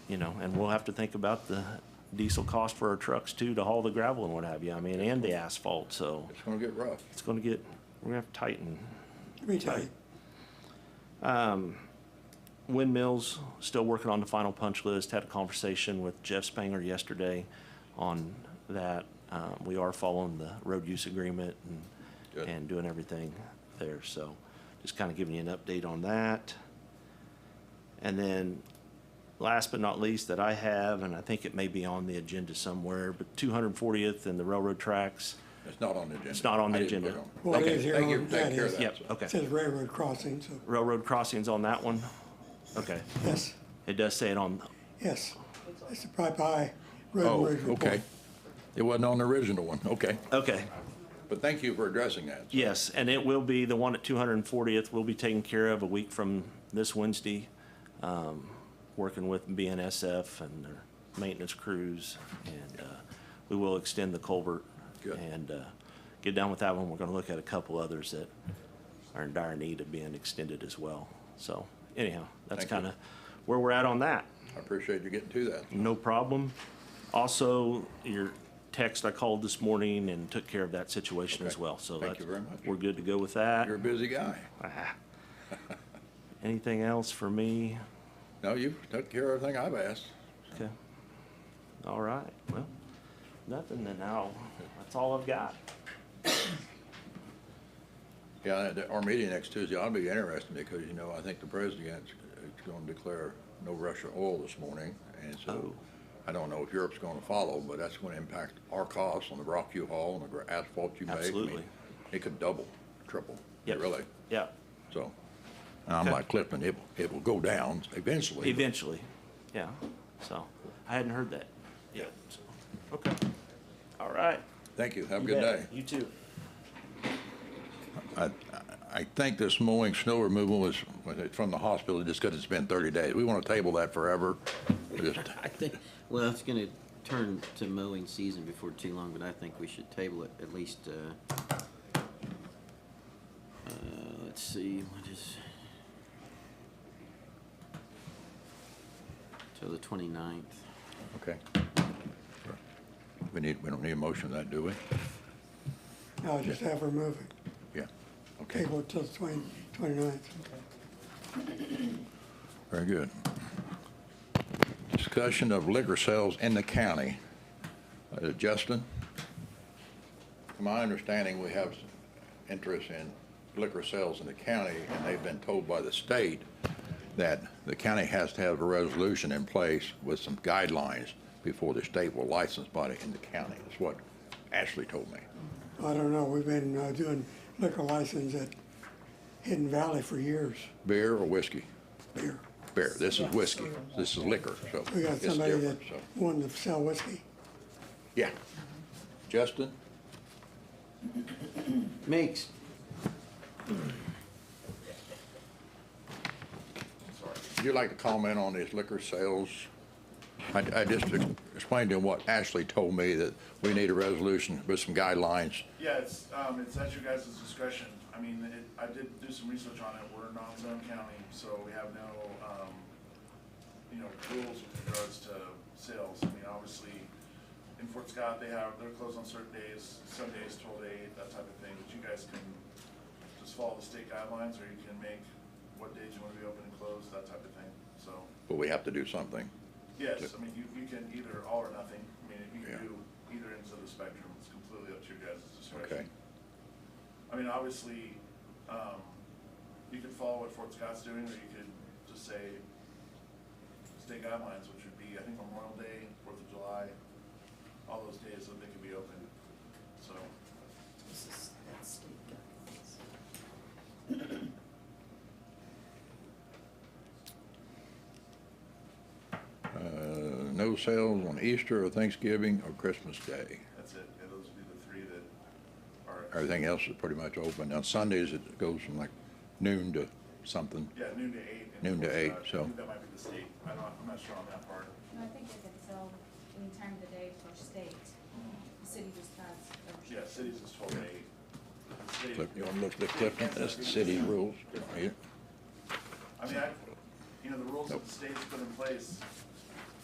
you know, and we'll have to think about the diesel cost for our trucks too, to haul the gravel and what have you, I mean, and the asphalt, so It's gonna get rough. it's gonna get, we're gonna have to tighten. Um, Let me tell you, Windmills, still working on the final punch list, had a conversation with Jeff Spanger yesterday on that. Uh, we are following the road use agreement and, Good. and doing everything there, so just kind of giving you an update on that. And then, last but not least, that I have, and I think it may be on the agenda somewhere, but two hundred and fortieth and the railroad tracks. It's not on the agenda. It's not on the I didn't put agenda. it on. Well, it Okay, is here thank you on- for taking that care of is- that. Yep, so. it okay. says railroad crossing, so, Railroad crossings on that one? Okay. yes, It does say it on, yes. It's the Pipe High Road and Oh, Bridge Report. okay. It wasn't on the original one, okay. okay. But thank you for addressing that. Yes, and it will be, the one at 240th will be taken care of a week from this Wednesday, um, working with BNSF and their maintenance crews. And uh, we will extend the culvert. Good. And uh, get down with that one. We're going to look at a couple others that are in dire need of being extended as well. So anyhow, that's Thank kind you. of where we're at on that. I appreciate you getting to that. No problem. Also, your text, I called this morning and took care of that situation as Okay. well, so Thank that's. you very much. We're good to go with that. You're a busy guy. Ah. Anything else for me? No, you took care of everything I've asked. Okay. All right, well, nothing then now. That's all I've got. Yeah, that- our meeting next Tuesday ought to be interesting because, you know, I think the president is going to declare no Russia oil this morning. And so Oh. I don't know if Europe's going to follow, but that's going to impact our costs on the rock you haul and the gra- asphalt you make. I mean, Absolutely. It could double, triple, Yep. really. Yeah, So, and I'm Okay. like Clifton, it, will- it will go down eventually. but- eventually, yeah, so, I hadn't heard that. Yeah. Okay, all right. Thank you, have a You good day. bet. You too. I, I think this mowing, snow removal was, was it from the hospital, just because it's been 30 days. We want to table that forever. Just, I think, well, it's gonna turn to mowing season before too long, but I think we should table it at least, uh, uh, let's see, what is? Till the twenty-ninth. okay. We need, we don't need a motion to that, do we? No, I just have her move it, Yeah, okay, table it till the twenty, twenty-ninth. very good. Discussion of liquor sales in the county. Uh, Justin? From my understanding, we have interest in liquor sales in the county, and they've been told by the state that the county has to have a resolution in place with some guidelines before the state will license body in the county. That's what Ashley told me. I don't know, we've been uh, doing liquor license at Hidden Valley for years, Beer or whiskey? beer. Beer. This is whiskey. This is liquor, so We got it's somebody that different, so. wanted to sell whiskey. Yeah. Justin? Meeks, Would you like to comment on these liquor sales? I, I just ex- explained to him what Ashley told me, that we need a resolution with some guidelines. Yeah, it's, um, it's at your guys' discretion. I mean, it, I did do some research on it. We're a non-zone county, so we have no, um, you know, rules with regards to sales. I mean, obviously, in Fort Scott, they have, they're closed on certain days, some days twelve to eight, that type of thing. But you guys can just follow the state guidelines, or you can make what days you wanna be open and closed, that type of thing. So, But we have to do something. yes, I mean, you, you can either all or nothing. I mean, if you Yeah. can do either ends of the spectrum, it's completely up to your guys' Okay. discretion. I mean, obviously, um, you could follow what Fort Scott's doing, or you could just say state guidelines, which would be, I think, Memorial Day, Fourth of July, all those days that they could be open, so. This is, that's state guidelines. Uh, no sales on Easter or Thanksgiving or Christmas Day. That's it, Yeah, those would be the three that are, Everything else is pretty much open. On Sundays, it goes from like noon to something. yeah, noon to eight. in Noon to Fort eight, Scott. I so- think That might be the state, I don't, I'm not sure on that part. No, I think they can sell any time of the day for state. The city just has. a Yeah, restriction. cities is twelve to eight. The state- Clif- You want to look at Clifton? That's the city rules. Yeah. I mean, I, you know, the rules that the state's put in place